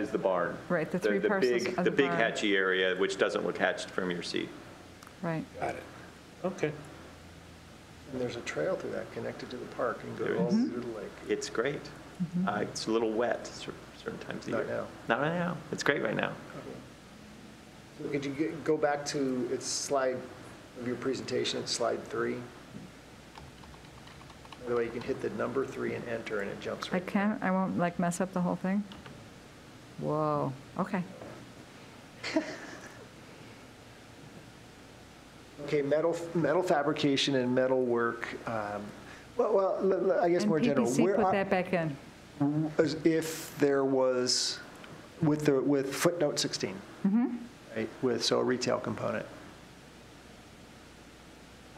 is the barn. Right, the three parcels big- are The the big barn. hatchy area, which doesn't look hatched from your seat. Right. Okay. And there's a trail through that connected to the park and There go all is. through the lake. It's great. Mm-hmm. Uh, It's a little wet cer- certain times of Not year. now. Not right now. It's great right now. So Could you get- go back to, it's slide, of your presentation, it's slide three? By the way, you can hit the number three and enter, and it jumps I right. can, I won't like mess up the whole thing? Whoa, okay. Okay, metal, metal fabrication and metal work, um, well, well, le- le- I guess more general. And PPC where put are- that back in. as If there was, with the, with footnote 16. Mm-hmm. Right, with, so a retail component.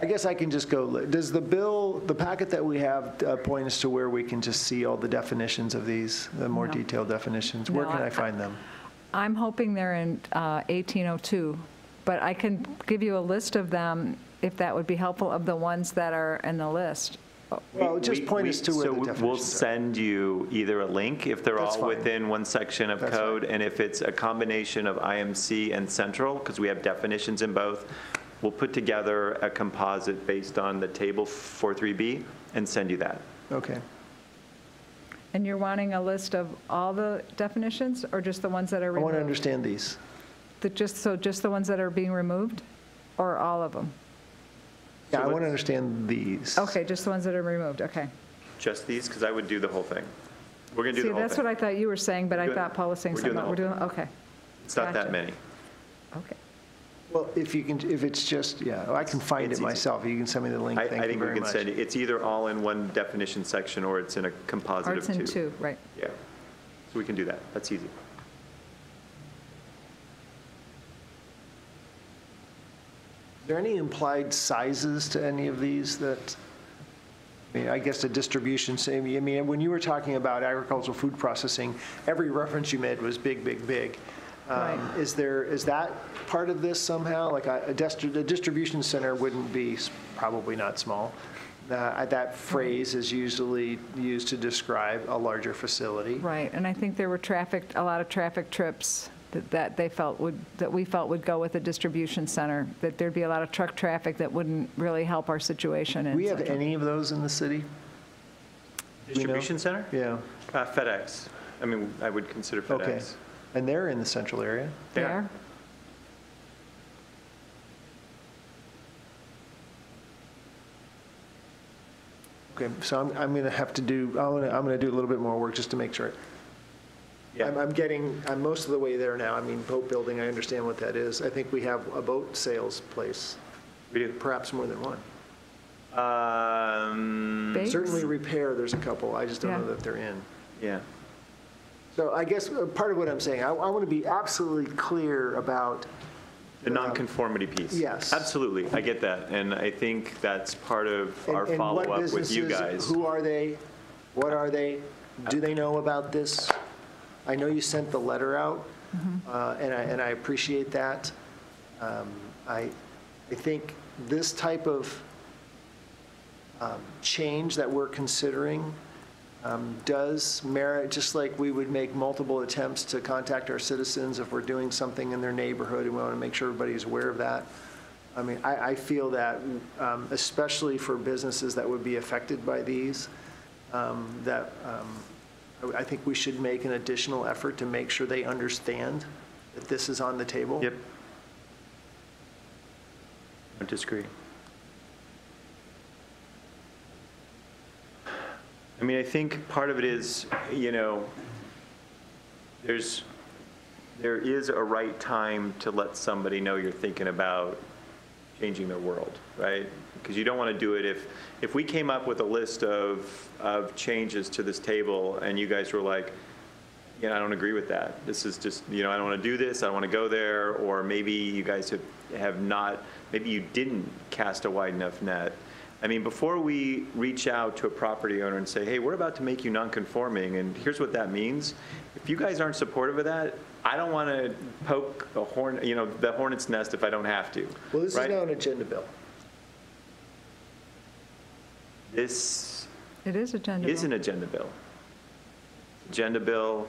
I guess I can just go, li- does the bill, the packet that we have uh, point us to where we can just see all the definitions of these, the more No. detailed definitions? Where No, can I- I find them? I'm hoping they're in uh, 1802, but I can give you a list of them, if that would be helpful, of the ones that are in the list. Well, just We- point we- us to where the So we'll definitions are. send you either a link if they're That's all fine. within one section of That's fine. code, and if it's a combination of IMC and central, because we have definitions in both, we'll put together a composite based on the table 43B and send you that. Okay. And you're wanting a list of all the definitions, or just the ones that are I want to removed? understand these. The- Just, so just the ones that are being removed, or all of them? Yeah, I want to understand these. Okay, just the ones that are removed, okay. Just these, because I would do the whole thing. We're going to do See, the whole that's what thing. I thought you were saying, but I We're doing- thought Paul was saying we're doing something. the We're doing, whole okay, It's not gotcha. that many. okay. Well, if you can, if it's just, yeah, I can find It's it easy. myself. You can send me the link. I Thank I you think we very can much. send, it- it's either all in one definition section, or it's in a Or composite of it's two. in two, right. Yeah, so we can do that, that's easy. Is there any implied sizes to any of these that, I mean, I guess the distribution, same- I mean, when you were talking about agricultural food processing, every reference you made was big, big, big. Um, Right. Is there, is that part of this somehow? Like I- a, distri- a distribution center wouldn't be, s- probably not small. Uh, That phrase is usually used to describe a larger facility. Right, and I think there were traffic, a lot of traffic trips that- that they felt would, that we felt would go with a distribution center, that there'd be a lot of truck traffic that wouldn't really help our situation. in Do we have Central- any of those in the city? We know? Distribution center? Yeah, Uh, FedEx. I mean, I would consider okay. FedEx. And they're in the central area? Yeah. There? Okay, so I'm, I'm going to have to do, I'm going to, I'm going to do a little bit more work just to make sure. I'm, Yeah, I'm getting, I'm most of the way there now. I mean, boat building, I understand what that is. I think we have a boat sales place, we do. perhaps more than one. Um, Bakes? Certainly repair, there's a couple, I just don't know Yeah. that they're in. yeah. So I guess uh, part of what I'm saying, I, I want to be absolutely clear about, The nonconformity piece. yes. Absolutely, I get that, and I think that's part of and our and what follow-up with you businesses, guys. who are they? What are they? Do they know about this? I know you sent the letter out, uh, and I, and I appreciate that. Um, I, I think this type of um, change that we're considering um, does merit, just like we would make multiple attempts to contact our citizens if we're doing something in their neighborhood, and we want to make sure everybody's aware of that. I mean, I, I feel that, um, especially for businesses that would be affected by these, um, that um, I I think we should make an additional effort to make sure they understand that this is on the table. Yep. I disagree. I mean, I think part of it is, you know, there's, there is a right time to let somebody know you're thinking about changing their world, right? Because you don't want to do it if, if we came up with a list of, of changes to this table and you guys were like, yeah, I don't agree with that. This is just, you know, I don't want to do this, I don't want to go there, or maybe you guys have, have not, maybe you didn't cast a wide enough net. I mean, before we reach out to a property owner and say, hey, we're about to make you non-conforming, and here's what that means, if you guys aren't supportive of that, I don't want to poke a horn, you know, the hornet's nest if I don't have to. Well, this is right? now an agenda bill. This It is agenda. is bill. an agenda bill. Agenda bill,